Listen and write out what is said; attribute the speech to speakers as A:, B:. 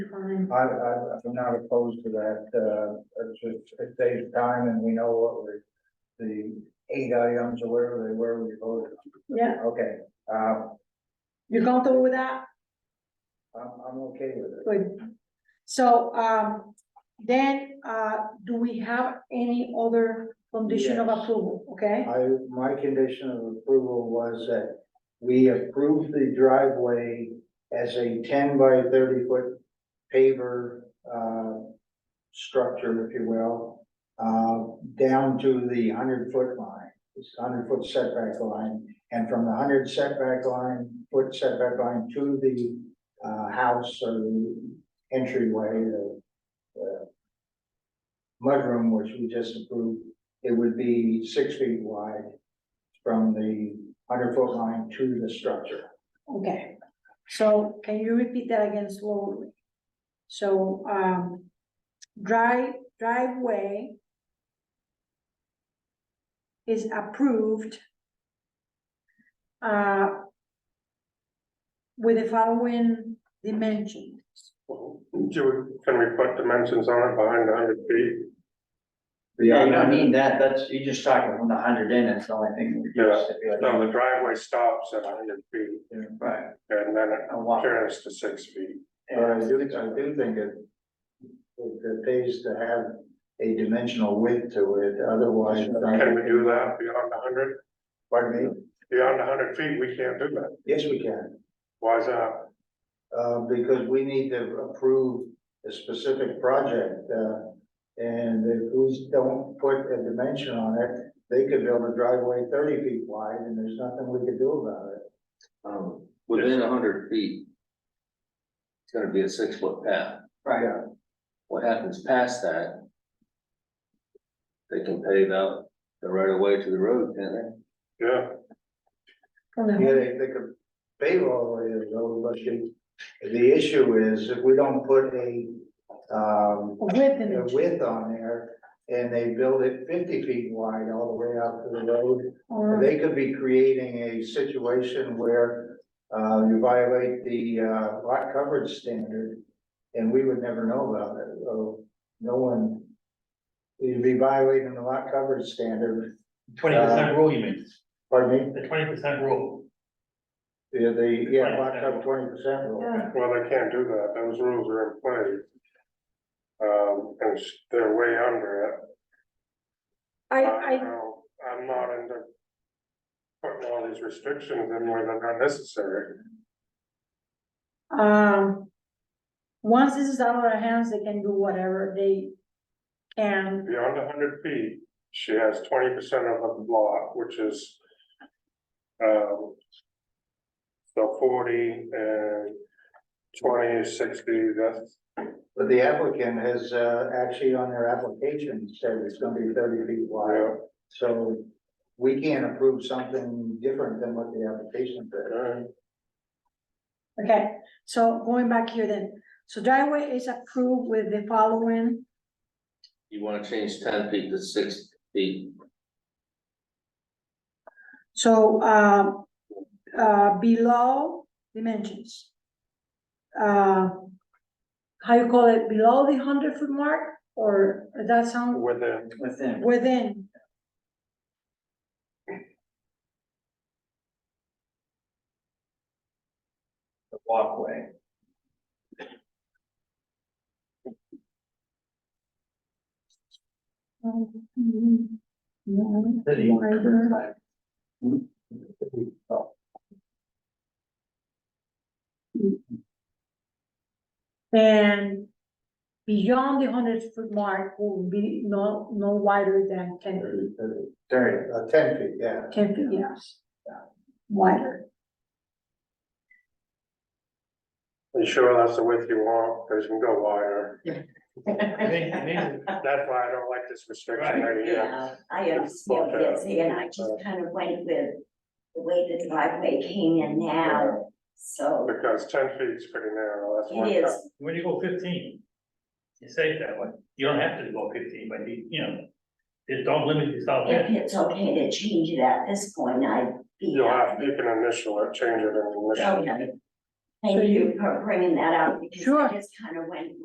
A: fine.
B: I, I, I'm not opposed to that, uh, it's just, it saves time and we know what we, the eight items or whatever they were, we voted
A: Yeah,
B: on. Okay, uh,
A: you're comfortable with that?
B: I'm, I'm okay with it.
A: Good. So, um, then, uh, do we have any other condition of
B: Yes.
A: approval, okay?
B: I, my condition of approval was that we approve the driveway as a ten by thirty foot paver, uh, structure, if you will, uh, down to the hundred foot line, it's hundred foot setback line. And from the hundred setback line, foot setback line to the, uh, house or the entryway, the, the mudroom, which we just approved, it would be six feet wide from the hundred foot line to the structure.
A: Okay, so can you repeat that again slowly? So, um, drive, driveway is approved uh, with the following dimensions.
C: Do we, can we put dimensions on it behind the hundred feet?
D: Yeah, you don't need that, that's, you're just talking from the hundred in, it's the only thing. that
C: Yeah.
D: you stipulate.
C: No, the driveway stops at hundred feet
D: Right.
C: and then it
D: A lot.
C: turns to six feet.
B: But I do, I do think it, it pays to have a dimensional width to it, otherwise. uh,
C: Can we do that beyond hundred?
B: Pardon me?
C: Beyond hundred feet, we can't do that.
B: Yes, we can,
C: Why is that?
B: uh, because we need to approve a specific project, uh, and if we don't put a dimension on it, they could build a driveway thirty feet wide and there's nothing we could do about it.
E: Um, within a hundred feet. It's gonna be a six foot path.
D: Right,
E: What happens past that? They can pave out the right of way to the road, can't they?
C: Yeah,
A: From the
B: Yeah, they, they could pave all the way to the road, but you, the issue is if we don't put a, um,
A: width and
B: the width on there, and they build it fifty feet wide all the way out to the road.
A: or-
B: They could be creating a situation where, uh, you violate the, uh, lot coverage standard, and we would never know about it, so no one, you'd be violating the lot coverage standard,
F: Twenty percent rule, you mean,
B: pardon me,
F: the twenty percent rule,
B: Yeah, the, yeah, lot coverage twenty percent rule.
A: Yeah.
C: well, they can't do that. Those rules are in place. Um, and s- they're way under it.
A: I,
C: I
A: I,
C: know, I'm not into putting all these restrictions in where they're not necessary.
A: Um, once this is out of our hands, they can do whatever they can.
C: Beyond hundred feet, she has twenty percent of the lot, which is um so forty and twenty is sixty, that's
B: But the applicant has, uh, actually on their application said it's gonna be thirty feet wide,
C: yeah.
B: so we can't approve something different than what the application said.
C: okay.
A: Okay, so going back here then, so driveway is approved with the following,
E: You wanna change ten feet to six feet,
A: so, um, uh, below dimensions. Uh, how you call it, below the hundred foot mark, or does that sound
C: Within,
D: within,
A: within?
D: the walkway.
A: Wider. And beyond the hundred foot mark will be no, no wider than ten,
B: Thirty, thirty, thirty, uh, ten feet, yeah.
A: ten feet, yes. Wider,
C: you sure that's the width you want, because you can go wider,
F: I think, I think,
C: that's why I don't like this restriction
F: Right.
C: right here.
G: Yeah, I am still busy and I just kind of went with the way the driveway came in now, so
C: Because ten feet's pretty narrow, that's one.
G: it is,
F: when you go fifteen, you say it that way, you don't have to go fifteen, but you, you know, just don't limit yourself.
G: if it's okay to change it at this point, I'd be. Oh,
C: You'll have, you can initial it, change it and initial.
G: Okay, Thank you for bringing that up, because
A: Sure.
G: I just kind of went